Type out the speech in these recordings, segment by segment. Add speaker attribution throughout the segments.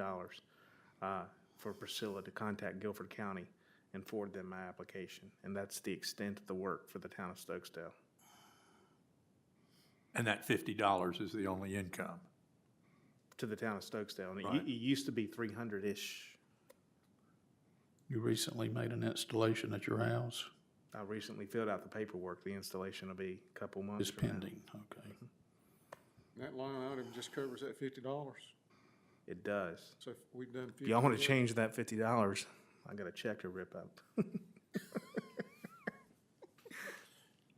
Speaker 1: dollars uh, for Priscilla to contact Guilford County and forward them my application. And that's the extent of the work for the town of Stokesdale.
Speaker 2: And that fifty dollars is the only income.
Speaker 1: to the town of Stokesdale, and it, u-
Speaker 2: Right.
Speaker 1: it used to be three hundred ish.
Speaker 3: You recently made an installation at your house?
Speaker 1: I recently filled out the paperwork. The installation will be a couple months.
Speaker 3: It's
Speaker 1: from now.
Speaker 3: pending, okay.
Speaker 2: Mm-hmm.
Speaker 4: That line item just covers that fifty dollars,
Speaker 1: It does.
Speaker 4: so if we've done
Speaker 1: If
Speaker 4: fifty.
Speaker 1: y'all want to change that fifty dollars, I got a check to rip up.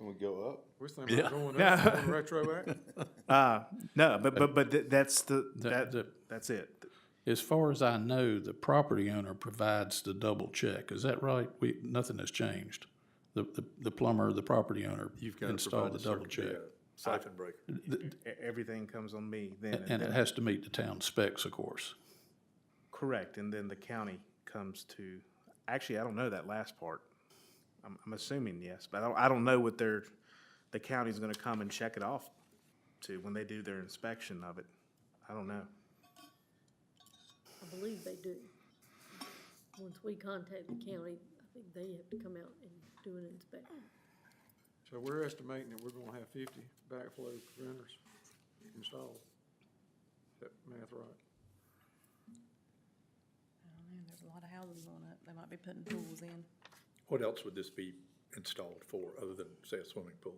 Speaker 5: And we go up.
Speaker 4: We're thinking about going up, going retroactive.
Speaker 1: Uh, no, but but but th- that's the
Speaker 3: The-
Speaker 1: that
Speaker 3: the-
Speaker 1: that's it.
Speaker 3: As far as I know, the property owner provides the double check, is that right? We, nothing has changed. The, the, the plumber, the property owner
Speaker 2: You've got to
Speaker 3: installed
Speaker 2: provide
Speaker 3: the
Speaker 2: the
Speaker 3: double
Speaker 2: circuit,
Speaker 3: check.
Speaker 2: siphon breaker.
Speaker 1: E- Everything comes on me then. and
Speaker 3: And
Speaker 1: then-
Speaker 3: it has to meet the town specs, of course.
Speaker 1: correct, and then the county comes to. Actually, I don't know that last part. I'm, I'm assuming yes, but I don't, I don't know what their the county's going to come and check it off to when they do their inspection of it. I don't know.
Speaker 6: I believe they do. Once we contact the county, I think they have to come out and do an inspection.
Speaker 4: So we're estimating that we're gonna have fifty backflow preventers installed. Is that math right?
Speaker 7: don't know, there's a lot of houses on it, they might be putting pools in.
Speaker 2: What else would this be installed for, other than, say, a swimming pool?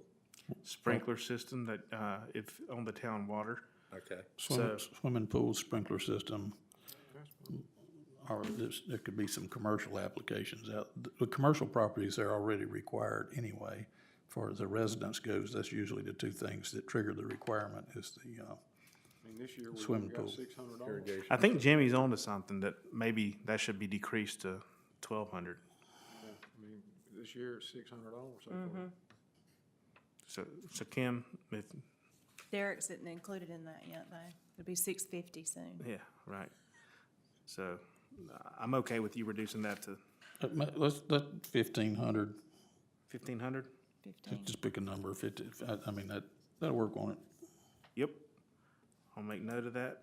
Speaker 1: sprinkler system that, uh, if on the town water.
Speaker 2: Okay.
Speaker 3: Swimming, swimming pool, sprinkler system,
Speaker 4: That's
Speaker 3: or there's, there could be some commercial applications out. The- The commercial properties are already required anyway. Far as the residence goes, that's usually the two things that trigger the requirement is the, uh,
Speaker 4: I mean, this year we've
Speaker 3: Swimming
Speaker 4: only got
Speaker 3: pool.
Speaker 4: six hundred dollars.
Speaker 1: I think Jimmy's onto something that maybe that should be decreased to twelve hundred.
Speaker 4: I mean, this year it's six hundred dollars so far.
Speaker 1: So, so Kim, if,
Speaker 7: Derek's isn't included in that yet, though. It'll be six fifty soon.
Speaker 1: yeah, right. So I'm okay with you reducing that to
Speaker 3: Uh, ma- Let's, let fifteen hundred,
Speaker 1: fifteen hundred?
Speaker 7: Fifteen.
Speaker 3: just pick a number, fifty, I, I mean, that, that'll work on it.
Speaker 1: Yep. I'll make note of that.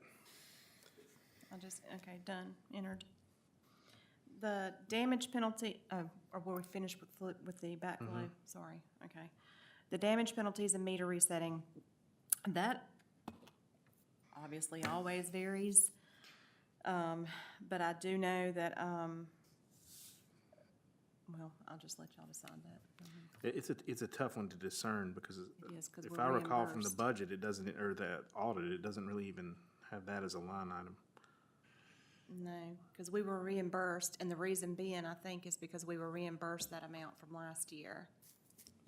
Speaker 7: I just, okay, done, entered. The damage penalty, uh, or were we finished with, fl- with the backflow? Sorry, okay. The damage penalties and meter resetting, that obviously always varies. Um, but I do know that, um, well, I'll just let y'all decide that.
Speaker 1: It- It's a, it's a tough one to discern because
Speaker 7: is, 'cause
Speaker 1: if
Speaker 7: we're
Speaker 1: I recall from the
Speaker 7: reimbursed.
Speaker 1: budget, it doesn't, or the audit, it doesn't really even have that as a line item.
Speaker 7: No, because we were reimbursed, and the reason being, I think, is because we were reimbursed that amount from last year.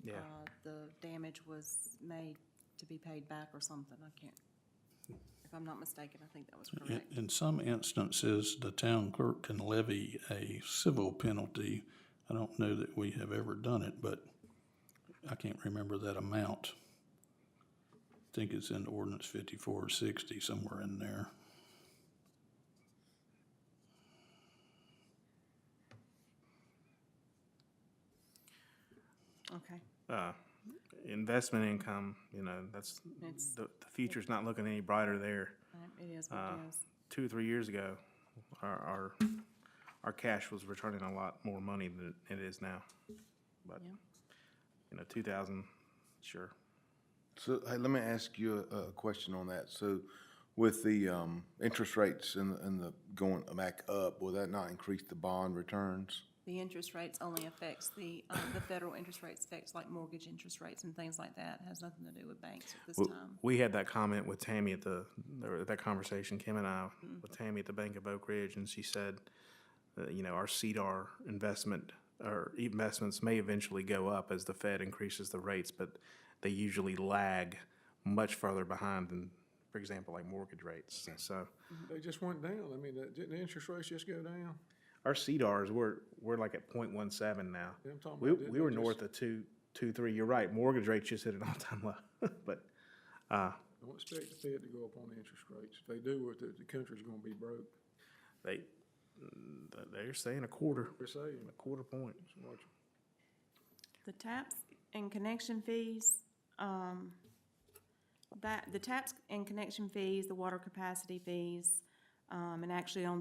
Speaker 1: Yeah.
Speaker 7: uh, the damage was made to be paid back or something, I can't, if I'm not mistaken, I think that was
Speaker 3: In,
Speaker 7: correct.
Speaker 3: in some instances, the town clerk can levy a civil penalty. I don't know that we have ever done it, but I can't remember that amount. I Think it's in ordinance fifty-four or sixty, somewhere in there.
Speaker 7: Okay,
Speaker 1: uh, investment income, you know, that's,
Speaker 7: It's-
Speaker 1: the, the future's not looking any brighter there.
Speaker 7: Alright, it is what it is.
Speaker 1: Two, or three years ago, our, our, our cash was returning a lot more money than it is now. But,
Speaker 7: Yeah.
Speaker 1: you know, two thousand, sure.
Speaker 5: So, hey, let me ask you a, a question on that. So with the, um, interest rates and, and the going back up, will that not increase the bond returns?
Speaker 7: The interest rates only affects the, uh, the federal interest rates affects like mortgage interest rates and things like that, It has nothing to do with banks at this
Speaker 1: Well,
Speaker 7: time.
Speaker 1: We had that comment with Tammy at the, or that conversation, Kim and I, with Tammy at the Bank of Oak Ridge, and she said, uh, you know, our CDR investment, or investments may eventually go up as the Fed increases the rates, but they usually lag much further behind than, for example, like mortgage rates. So
Speaker 4: They just went down. I mean, that- didn't the interest rates just go down?
Speaker 1: our CDRs, we're, we're like at point one seven now.
Speaker 4: Yeah, I'm talking
Speaker 1: We,
Speaker 4: about, didn't
Speaker 1: we were
Speaker 4: they just-
Speaker 1: north of two, two, three. You're right. Mortgage rates just hit an all-time low, but, uh,
Speaker 4: Don't expect the Fed to go up on the interest rates. If they do, what the, the country's gonna be broke.
Speaker 1: they, they're saying a quarter.
Speaker 4: We're saying,
Speaker 1: A quarter point.
Speaker 4: so much.
Speaker 7: The taps and connection fees, um, that, the taps and connection fees, the water capacity fees, Um, and actually on